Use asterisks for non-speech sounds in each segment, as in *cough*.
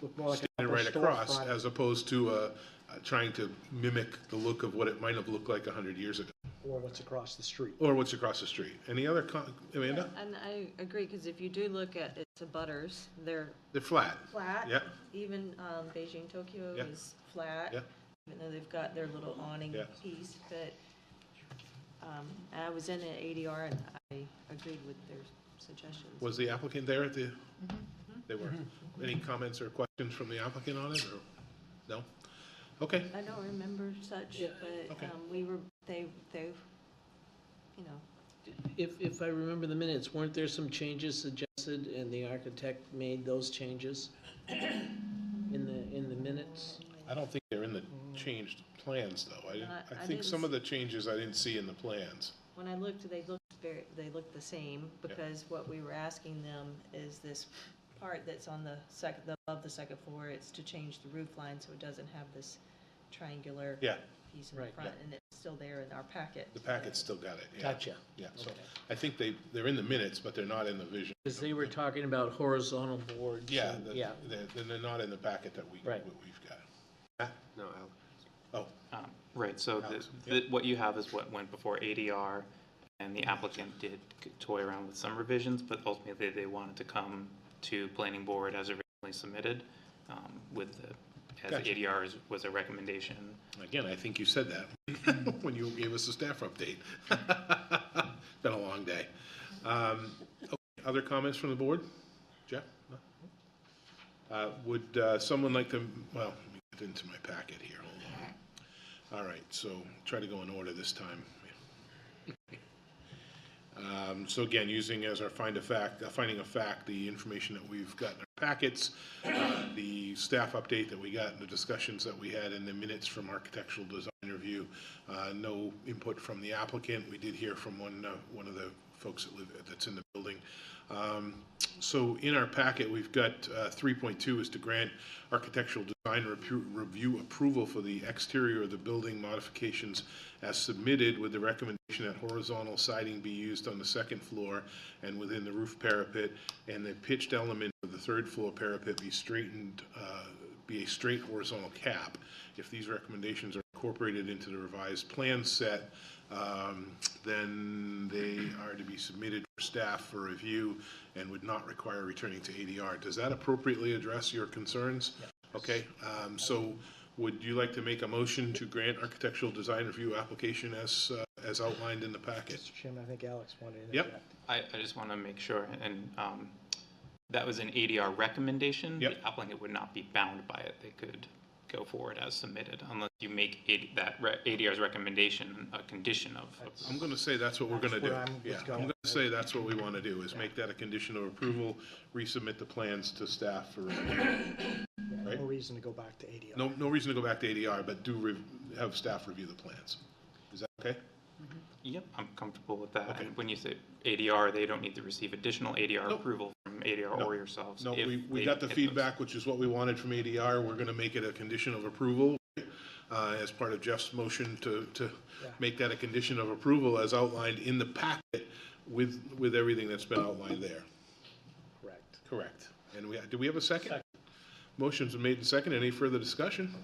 look more like an and upper right across, storefront. as opposed to uh, uh, trying to mimic the look of what it might have looked like 100 years ago, Or what's across the street. or what's across the street. Any other, con- Amanda? And I agree, because if you do look at it's a butters, they're They're flat. flat. Yeah. Even um, Beijing Tokyo Yeah. is flat. Yeah. Even though they've got their little awning Yeah. piece, but um, and I was in an ADR and I agreed with their suggestions. Was the applicant there at the, they were. Any comments or questions from the applicant on it, or, no? Okay, I don't remember such, but Okay. um, we were, they, they, you know, If, if I remember the minutes, weren't there some changes suggested and the architect made those changes in the, in the minutes? I don't think they're in the changed plans, though. I, didn't- I- I I think didn't some of the changes I didn't see in the plans. When I looked, they looked very, they looked the same, because what we were asking them is this part that's on the second, above the second floor, it's to change the roof line, so it doesn't have this triangular Yeah, piece in the Right, front, and it's still there in our packet. the packet's still got it, yeah. Gotcha. Yeah, so Okay. I think they, they're in the minutes, but they're not in the vision. Because they were talking about horizontal boards. Yeah, and- the- Yeah, they're, then they're not in the packet that we, Right. what we've got. Matt? No, Al. Oh, Um, Right, so the, Alex, the, what you have is what went before ADR, and the applicant did toy around with some revisions, but ultimately they wanted to come to planning board as originally submitted, um, with the, as Gotcha. ADR is- was a recommendation. again, I think you said that *laughs* when you gave us the staff update. *laughs* Been a long day. Um, okay, Other comments from the board? Jeff? No? Uh, Would uh, someone like to, well, let me get into my packet here. Hold on. All right, so try to go in order this time. Um, So again, using as our find a fact, uh, finding a fact, the information that we've got in our packets, uh, the staff update that we got, the discussions that we had, and the minutes from architectural design review. Uh, No input from the applicant. We did hear from one, uh, one of the folks that live, that's in the building. Um, So in our packet, we've got uh, 3.2 is to grant architectural design repu- review approval for the exterior of the building modifications as submitted with the recommendation that horizontal siding be used on the second floor and within the roof parapet, and the pitched element of the third floor parapet be straightened, uh, be a straight horizontal cap. If these recommendations are incorporated into the revised plan set, um, then they are to be submitted for staff for review and would not require returning to ADR. Does that appropriately address your concerns? Okay, um, so would you like to make a motion to grant architectural design review application as, uh, as outlined in the packet? Mr. Chairman, I think Alex wanted to Yep. interject. I, I just want to make sure, and, um, that was an ADR recommendation. Yep. The applicant would not be bound by it, they could go forward as submitted, unless you make it, that re- ADR's recommendation a condition of approval. I'm gonna say that's what we're gonna That's do. where I'm- Yeah, was I'm going. gonna say that's what we wanna do, is make that a condition of approval, resubmit the plans to staff for review. Yeah, Right. No reason to go back to ADR. No, no reason to go back to ADR, but do rev- have staff review the plans. Is that okay? Yep, I'm comfortable with that. Okay. And when you say ADR, they don't need to receive additional ADR Nope. approval from ADR No. or yourselves. No, if we, we they got the hit those. feedback, which is what we wanted from ADR. We're gonna make it a condition of approval, uh, as part of Jeff's motion to, to make that a condition of approval as outlined in the packet with, with everything that's been outlined there. Correct. Correct. And we, do we have a second? Motion's been made and second. Any further discussion?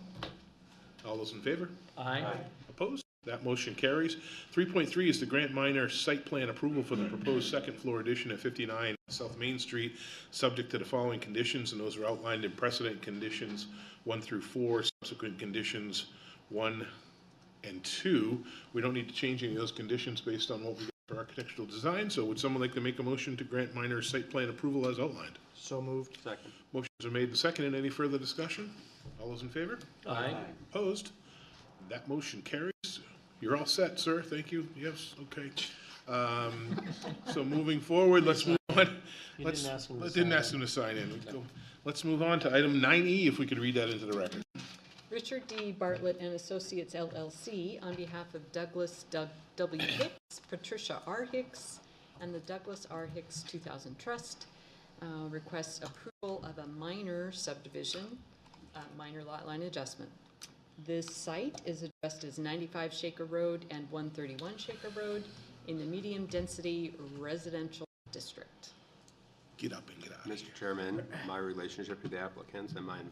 All those in favor? aye, Opposed? That motion carries. 3.3 is the grant minor site plan approval for the proposed second floor addition at 59 South Main Street, subject to the following conditions, and those are outlined in precedent conditions 1 through 4, subsequent conditions 1 and 2. We don't need to change any of those conditions based on what we got for architectural design, so would someone like to make a motion to grant minor site plan approval as outlined? So moved. Motions are made and seconded. Any further discussion? All those in favor? aye. Opposed? That motion carries. You're all set, sir. Thank you. Yes, okay. Um, So moving forward, let's move on. You Let's- didn't ask him to I sign Didn't in. ask him to sign in. Let's move on to item 9E, if we could read that into the record. Richard D. Bartlett and Associates LLC, on behalf of Douglas Doug- W. Hicks, Patricia R. Hicks, and the Douglas R. Hicks 2000 Trust, uh, requests approval of a minor subdivision, uh, minor lot line adjustment. This site is addressed as 95 Shaker Road and 131 Shaker Road in the medium-density residential district. Get up and get out. Mr. Chairman, my relationship to the applicants and my